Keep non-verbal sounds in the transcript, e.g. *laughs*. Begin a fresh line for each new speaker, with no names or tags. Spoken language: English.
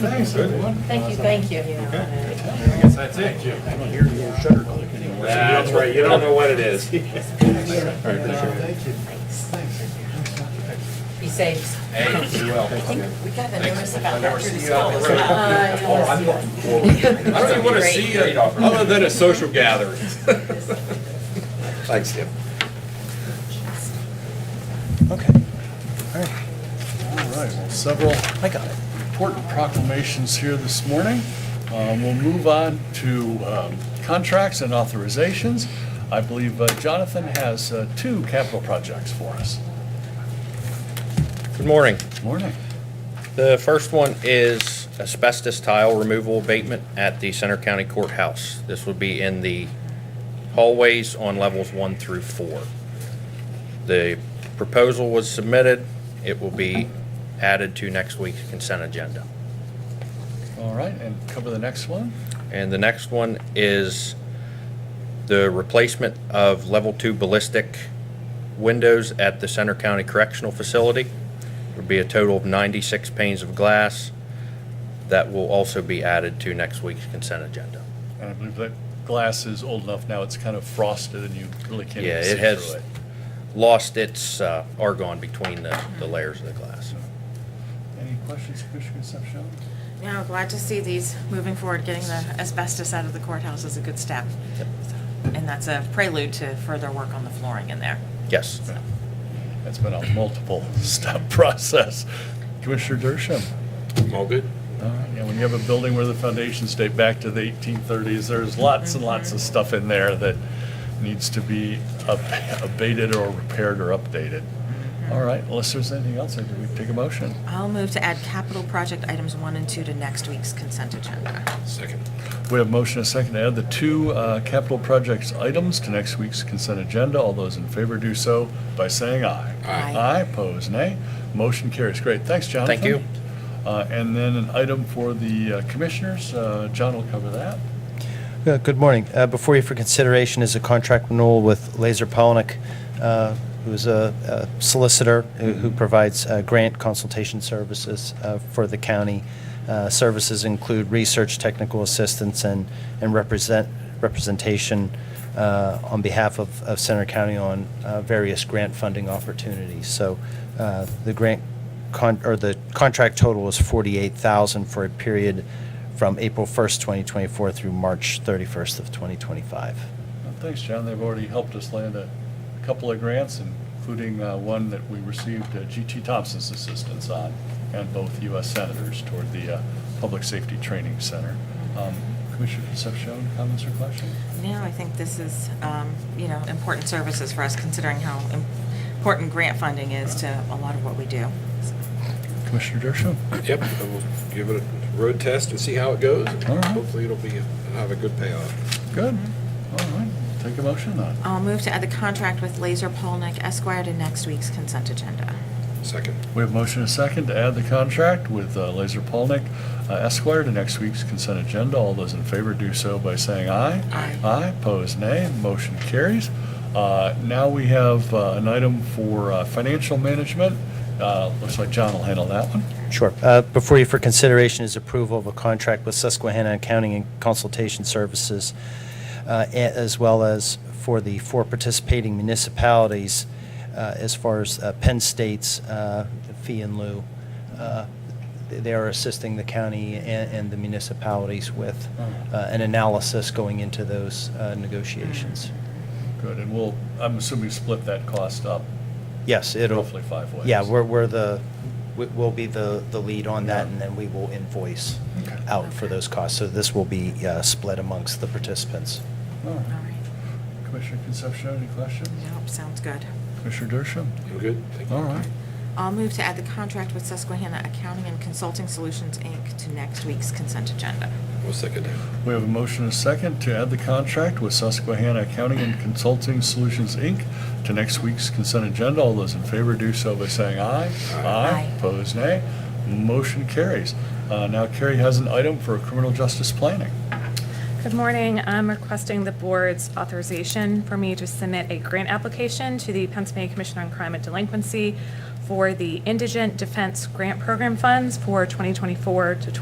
Thanks, everyone.
Thank you, thank you.
Okay, I guess that's it. I don't hear your shutter clicking anymore.
That's right, you don't know what it is.
Thank you.
Be safe.
Hey, you *laughs* will.
We got the notice about Uh,
never
that through the
see you out
school
in
as
the road.
well.
Oh, I'm looking forward. I don't even want to see you, other than a social gathering.
Thanks, Tim.
Okay. All right, All right. well, several
I got it.
important proclamations here this morning. Um, We'll move on to um, contracts and authorizations. I believe uh, Jonathan has uh, two capital projects for us.
Good morning.
Morning.
The first one is asbestos tile removal abatement at the Center County Courthouse. This would be in the hallways on levels one through four. The proposal was submitted. It will be added to next week's consent agenda.
All right, and cover the next one.
And the next one is the replacement of level two ballistic windows at the Center County Correctional Facility. There'll be a total of 96 panes of glass that will also be added to next week's consent agenda.
And I believe that glass is old enough now, it's kind of frosted and you really can't
Yeah,
even see
it
through it.
has lost its uh, argon between the the layers of the glass.
Any questions, Commissioner Concepcion?
Yeah, I'm glad to see these moving forward, getting the asbestos out of the courthouse is a good step. And that's a prelude to further work on the flooring in there.
Yes.
That's been a *laughs* multiple-step process. Commissioner Dershowitz?
All good?
All right, Yeah, when you have a building where the foundations date back to the 1830s, there's lots and lots of stuff in there that needs to be ab- abated or repaired or updated. All right, unless there's anything else, I think we take a motion.
I'll move to add capital project items one and two to next week's consent agenda.
Second.
We have motion and a second to add the two uh, capital projects items to next week's consent agenda. All those in favor do so by saying aye.
Aye.
Aye, pose nay. Motion carries. Great, thanks, Jonathan.
Thank you.
Uh, And then an item for the uh, commissioners. Uh, John will cover that.
Uh, Good morning. Uh, Before you for consideration is a contract renewal with Laser Polnick, uh, who's a a solicitor who who provides uh, grant consultation services uh, for the county. Uh, Services include research, technical assistance, and and represent representation uh, on behalf of of Center County on uh, various grant funding opportunities. So uh, the grant, con- or the contract total is 48000 for a period from April 1st, 2024 through March 31st of 2025.
Well, Uh, Thanks, John. They've already helped us land a couple of grants, including uh, one that we received uh, G.T. Thompson's assistance on, and both U.S. senators toward the uh, Public Safety Training Center. Um, Commissioner Concepcion, comments or questions?
No, I think this is, um, you know, important services for us considering how important grant funding is to a lot of what we do.
Commissioner Dershowitz?
Yep, and we'll give it a road test and see how it goes.
All right.
Hopefully it'll be, it'll have a good payoff.
Good. All right, take a motion then.
I'll move to add the contract with Laser Polnick Esquire to next week's consent agenda.
Second.
We have motion and second to add the contract with uh, Laser Polnick uh, Esquire to next week's consent agenda. All those in favor do so by saying aye.
Aye.
Aye, opposed nay, motion carries. Uh, Now we have uh, an item for uh, financial management. Uh, Looks like John will handle that one.
Sure. Uh, Before you for consideration is approval of a contract with Susquehanna Accounting and Consultation Services, uh, a- as well as for the four participating municipalities uh, as far as uh, Penn State's uh, fee in lieu. Uh, They are assisting the county and and the municipalities with uh, an analysis going into those uh, negotiations.
Good, and we'll, I'm assuming split that cost up
Yes, it'll.
roughly five ways.
Yeah, we're, we're the, we- we'll be the, the lead on that,
Yeah.
and then we will invoice
Okay.
out for those costs. So this will be uh, split amongst the participants.
All
All
right.
right.
Commissioner Concepcion, any questions?
Nope, sounds good.
Commissioner Dershowitz?
I'm good? Thank you.
All right.
I'll move to add the contract with Susquehanna Accounting and Consulting Solutions, Inc. to next week's consent agenda.
We'll second that.
We have a motion and a second to add the contract with Susquehanna Accounting and Consulting Solutions, Inc. to next week's consent agenda. All those in favor do so by saying aye.
Aye.
Opposed, nay. Motion carries. Uh, Now Carrie has an item for criminal justice planning.
Good morning. I'm requesting the board's authorization for me to submit a grant application to the Pennsylvania Commission on Crime and Delinquency for the Indigent Defense Grant Program funds for 2024 to